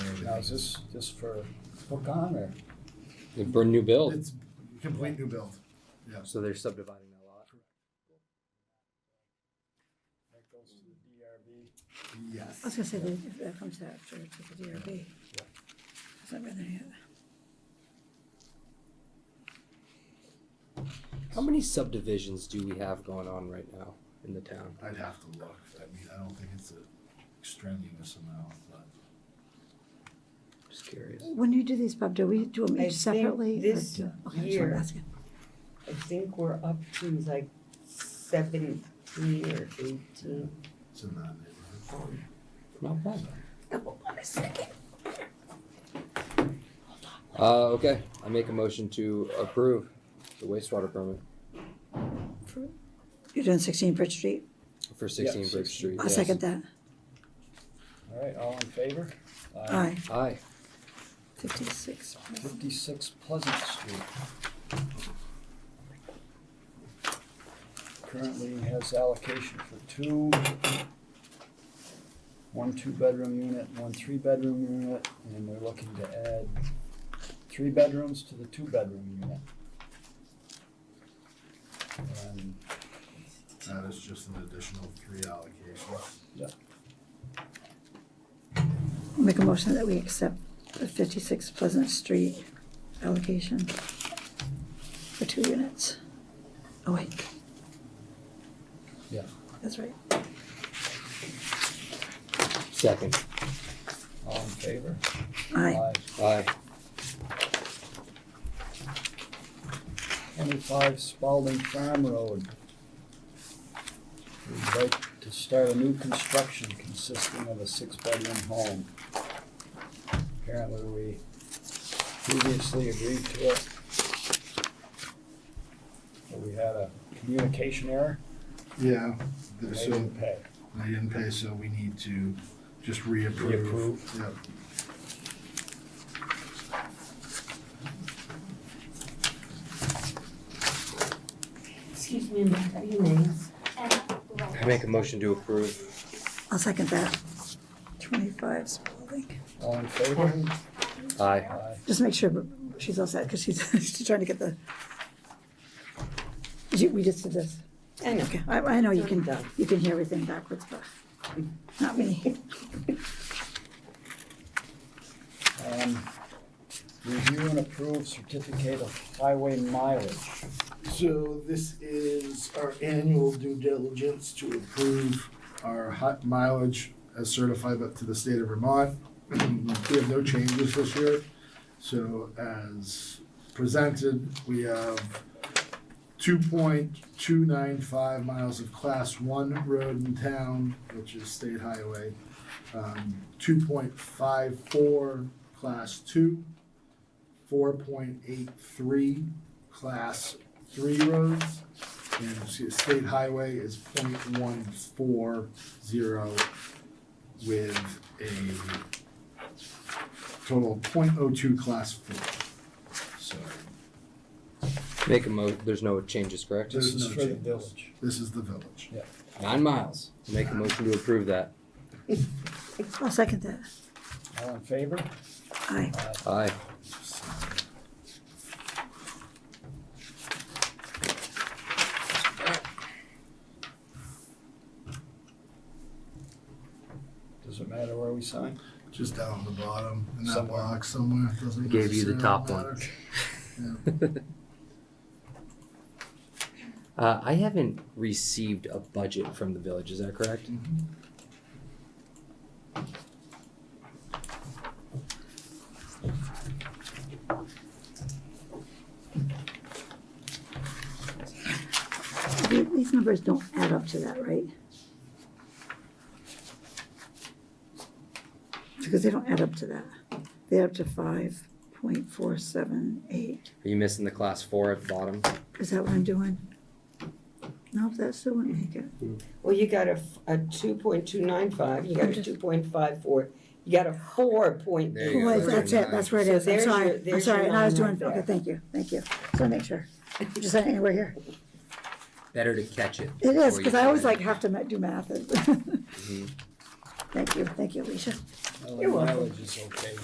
is this just for hook on or? They burn new build. It's complete new build, yes. So they're subdividing that lot. That goes to the Yes. I was gonna say, that if that comes after, it's at the DRB. Is that rather, yeah. How many subdivisions do we have going on right now in the town? I'd have to look. I mean, I don't think it's an extraneous amount, but Just curious. When you do these, Bob, do we do them I each think separately? or this do- okay, that's what I'm year- asking. I think we're up to like seventeen or eighteen. it's in that neighborhood. Not bad. Hold on a second. Uh, okay, I make a motion to approve the wastewater permit You're doing sixteen Bridge Street? for sixteen Yeah, Bridge 16. Street. I'll yes. second that. Uh-huh. DRB. All right, all in favor? Aye, Aye. fifty-six. Fifty-six Pleasant Street. Currently has allocation for two, one two-bedroom unit, one three-bedroom unit, and we're looking to add three bedrooms to the two-bedroom unit. And That is just an additional three allocations. Make a motion that we accept the fifty-six Pleasant Street allocation for two units. Oh, wait. Yeah. That's right. Second. all in favor? Aye. Aye. Twenty-five Spalding Farm Road. We'd like to start a new construction consisting of a six-bedroom home. Apparently, we previously agreed to it. But we had a communication error, Yeah, and they so didn't pay. they didn't pay, so we need to just reapprove. Reapprove. Yep. Excuse me, what are your names? I make a motion to approve. I'll second that. Twenty-five Spalding. All in favor? Aye. Aye. Just make sure she's all set, because she's, she's trying to get the. You- We just did this. I know. Okay, I, I know you can, Done. you can hear everything backwards, but not me. Um, Review and approve certificate of highway mileage. So this is our annual due diligence to approve our hot mileage as certified up to the state of Vermont. We have no changes this year. So as presented, we have two point two nine five miles of class one road in town, which is state highway. Um, two point five four class two, four point eight three class three roads. And the state highway is point one four zero with a total point oh two class four. So Make a mo, there's no changes, correct? This There's is no for the changes. village. this is the village. Nine miles. Make a motion to approve that. I'll second that. All in favor? Aye. Aye. Does it matter where we sign? Just down at the bottom in that Somewhere. box somewhere. Doesn't Gave you the necessarily top one. matter. Uh, I haven't received a budget from the village, is that correct? The- These numbers don't add up to that, right? Because they don't add up to that. They add up to five point four seven eight. Are you missing the class four at the bottom? Is that what I'm doing? No, that still wouldn't make it. Well, you got a, f- a two point two nine five, you got a two point five four, you got a four point There eight. you go. Well, that's it, that's where it is. So I'm there's your- sorry, I'm there's sorry. your And I was line right doing, okay, there. thank you, thank you. So I make sure. Just saying, we're here. Better to catch it. It is, before you because I put always it in. like have to ma- do Mm-hmm. math. Thank you, thank you, Alicia. Well, You're welcome. Mileage is okay.